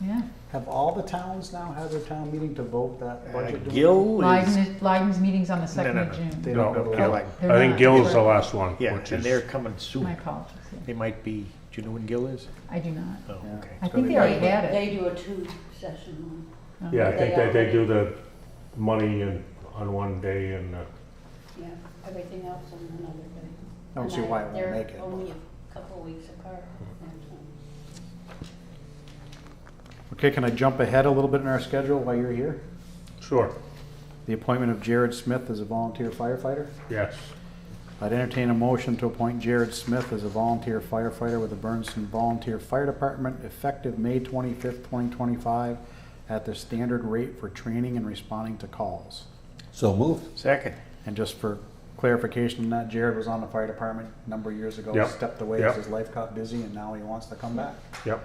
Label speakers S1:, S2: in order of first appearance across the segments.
S1: yeah.
S2: Have all the towns now had their town meeting to vote that budget? Do we-
S3: Gill Uh, is,
S1: Leiden, Leiden's meeting's on the second of
S4: no.
S2: They
S1: June.
S2: don't
S4: No,
S2: go to
S4: Gill.
S2: Lebanon.
S1: They're
S4: I think
S1: not.
S4: Gill's the last one,
S3: yeah,
S4: which
S3: and they're
S4: is,
S3: coming
S1: My
S3: soon.
S1: apologies, yeah.
S3: They might be, do you know when Gill is?
S1: I do not.
S3: Oh,
S2: Yeah.
S3: okay.
S1: I think they already had it.
S5: They do a two session
S1: Oh.
S4: yeah, I think
S5: They
S4: that they
S5: are.
S4: do the money and, on one day and, uh,
S5: one, yeah, everything else on another day.
S2: I don't see
S5: And
S2: why it won't
S5: they're
S2: make it,
S5: only a couple weeks apart. that's
S1: Hmm.
S5: all.
S2: Okay, can I jump ahead a little bit in our schedule while you're here?
S4: sure,
S2: The appointment of Jared Smith as a volunteer firefighter.
S4: yes.
S2: I'd entertain a motion to appoint Jared Smith as a volunteer firefighter with the Bernston Volunteer Fire Department effective May twenty-fifth, twenty twenty-five at the standard rate for training and responding to calls.
S6: So moved.
S3: Second,
S2: And just for clarification, that Jared was on the fire department a number of years ago,
S4: Yep,
S2: stepped away as
S4: yep.
S2: his life got busy, and now he wants to come back.
S4: Yep,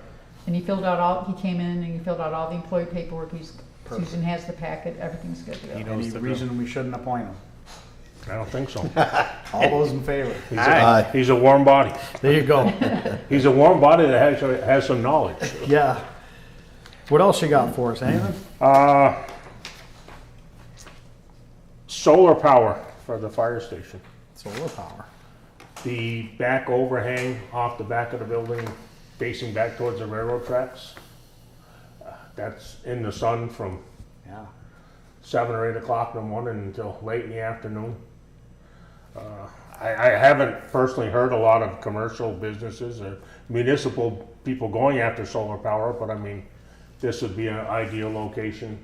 S1: And he filled out all, he came in and he filled out all the employee paperwork. He's,
S2: Perfect.
S1: Susan has the packet, everything's good to
S3: He
S1: go.
S3: knows
S2: Any
S3: the drill.
S2: reason we shouldn't appoint him?
S4: I don't think so.
S2: All those in favor?
S4: He's a-
S3: Aye.
S6: Aye.
S4: He's a warm body.
S2: There you go.
S4: He's a warm body that has, uh, has some knowledge.
S2: Yeah. What else you got for us, anything?
S4: Uh, solar power for the fire station.
S2: Solar power.
S4: The back overhang off the back of the building facing back towards the railroad tracks. uh, That's in the sun from
S2: Yeah.
S4: seven or eight o'clock in the morning until late in the afternoon. Uh, I, I haven't personally heard a lot of commercial businesses or municipal people going after solar power, but I mean, this would be an ideal location.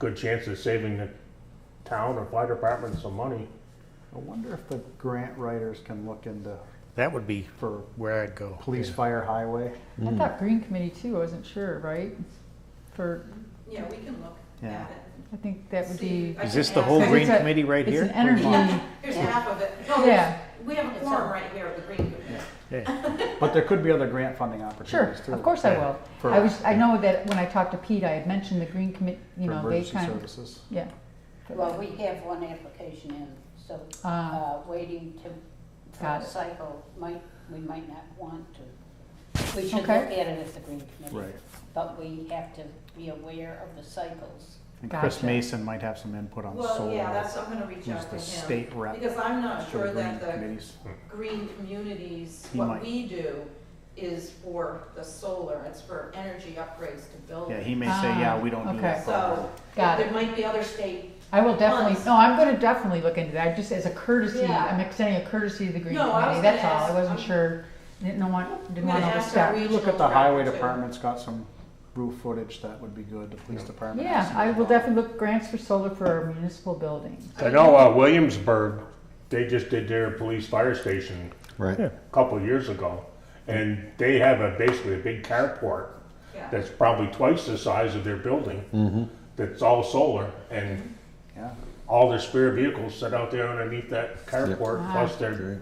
S4: Good chance of saving the town or fire department some money.
S2: I wonder if the grant writers can look into
S3: that would be
S2: for
S3: where I'd go.
S2: police, fire, highway.
S1: I
S4: Mm.
S1: thought Green Committee too, I wasn't sure, right? For,
S7: Yeah, we can look
S2: Yeah.
S7: at it.
S1: I think that would
S7: See,
S1: be,
S7: I
S3: Is
S7: can
S3: this the
S7: ask-
S3: whole
S1: It's
S3: green
S1: a-
S3: committee right
S1: it's
S3: here?
S1: an energy,
S7: Here's half of it. No,
S1: Yeah.
S7: there's- We have a
S5: It's all-
S7: forum right here at the Green Committee.
S3: Yeah.
S2: But there could be other grant funding
S1: sure,
S2: opportunities too.
S1: of course I
S3: Yeah.
S1: will.
S2: For-
S1: I was, I know that when I talked to Pete, I had mentioned the Green Committee, you
S2: For
S1: know, they
S2: emergency
S1: kind of,
S2: services.
S1: yeah.
S5: Well, we have one application in, so,
S1: Ah.
S5: uh, waiting to, for
S1: Got
S5: a
S1: it.
S5: cycle, might, we might not want to. We should look at
S1: Okay.
S5: it at the Green Committee.
S2: Right.
S5: But we have to be aware of the cycles.
S2: And Chris
S1: Gotcha.
S2: Mason might have some input on
S7: Well, yeah,
S2: solar.
S7: that's, I'm gonna reach
S2: Who's
S7: out to
S2: the
S7: him.
S2: state rep
S7: Because I'm not
S2: for
S7: sure
S2: the grant
S7: that the
S2: committees.
S7: green communities,
S2: He might.
S7: what we do is for the solar, it's for energy upgrades to
S2: Yeah,
S7: buildings.
S2: he may say, yeah, we don't
S1: Ah,
S2: do
S1: okay.
S2: that.
S7: So,
S1: Got
S7: there
S1: it.
S7: might be other state,
S1: I will definitely,
S7: Once.
S1: no, I'm gonna definitely look into that, just as a courtesy,
S7: Yeah.
S1: I'm extending a courtesy to the Green
S7: No, I was
S1: Committee, that's
S7: gonna
S1: all, I
S7: ask-
S1: wasn't
S7: I'm-
S1: sure. Didn't want,
S7: I'm
S1: didn't
S7: gonna
S1: want to
S7: ask our
S1: overstep.
S7: regional.
S2: Look at the highway
S7: director, too.
S2: department's got some roof footage that would be good, the police department. has
S1: Yeah,
S2: some
S1: I will
S2: involved.
S1: definitely look grants for solar for our municipal buildings.
S4: I know uh, Williamsburg, they just did their police fire station
S6: Right.
S4: a couple years ago, and they have a basically a big carport
S7: Yeah.
S4: that's probably twice the size of their building. That's all solar, and
S2: Yeah.
S4: all their spare vehicles sit out there underneath that carport.
S1: Wow.
S4: Plus, they're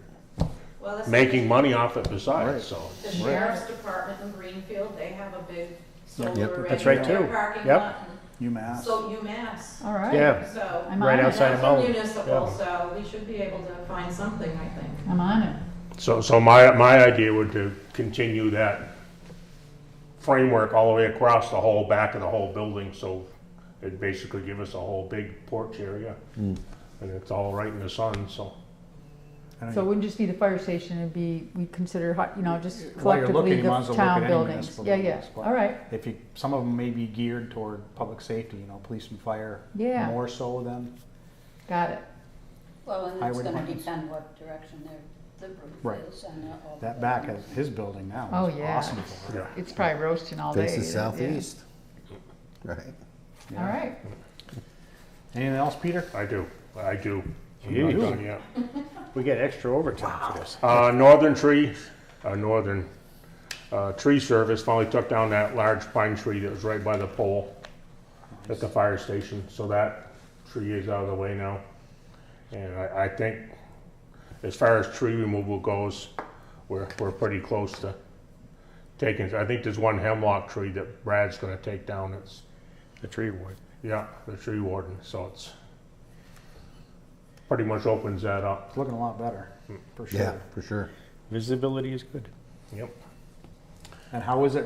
S7: Well, that's-
S4: making money off it besides. So,
S7: The sheriff's department in Greenfield, they have a big solar
S6: Yep,
S7: array
S3: that's
S7: in
S3: right,
S7: their
S3: too.
S7: parking
S3: Yep.
S7: lot.
S2: UMass.
S7: and So UMass,
S1: All right.
S3: Yeah,
S7: so.
S1: I'm
S3: right
S1: on it.
S7: And
S3: outside of
S7: that's a
S3: Mullen.
S7: municipal, so we should be able to find something, I think.
S1: I'm on it.
S4: so, so my my idea would to continue that framework all the way across the whole back of the whole building. So, it basically give us a whole big porch area, and it's all right in the sun. So.
S2: I know
S1: So it
S2: you-
S1: wouldn't just be the fire station, it'd be, we consider, hot- you know, just
S2: While you're
S1: collectively
S2: looking, you
S1: the
S2: might as well look at
S1: town
S2: any
S1: buildings.
S2: municipal
S1: Yeah, yeah,
S2: buildings, but-
S1: all right,
S2: If you, some of them may be geared toward public safety, you know, police and fire.
S1: Yeah.
S2: More so than,
S1: got it.
S5: Well, and it's
S2: Highway
S5: gonna
S2: departments.
S5: depend what direction their, the
S2: Right.
S5: roof is and all.
S2: that back is his building now.
S1: Oh,
S2: is
S1: yeah.
S2: Awesome for it.
S4: Yeah.
S1: It's probably roasting all day.
S6: Faces
S1: yeah.
S6: southeast. Right.
S1: All right,
S2: Anything else, Peter?
S4: I do, I do. I'm
S3: You
S4: not
S3: do?
S4: done yet.
S3: We get extra overtime for this.
S4: Uh, Northern Tree, uh, Northern, uh, Tree Service finally took down that large pine tree that was right by the pole at the fire station, so that tree is out of the way now. And I, I think, as far as tree removal goes, we're, we're pretty close to taking, I think there's one hemlock tree that Brad's gonna take down, it's,
S3: The tree ward.
S4: yeah, the tree warden, so it's pretty much opens that up.
S2: It's looking a lot better, for
S6: Yeah,
S2: sure.
S6: for sure.
S3: Visibility is good.
S4: Yep.
S2: And how is it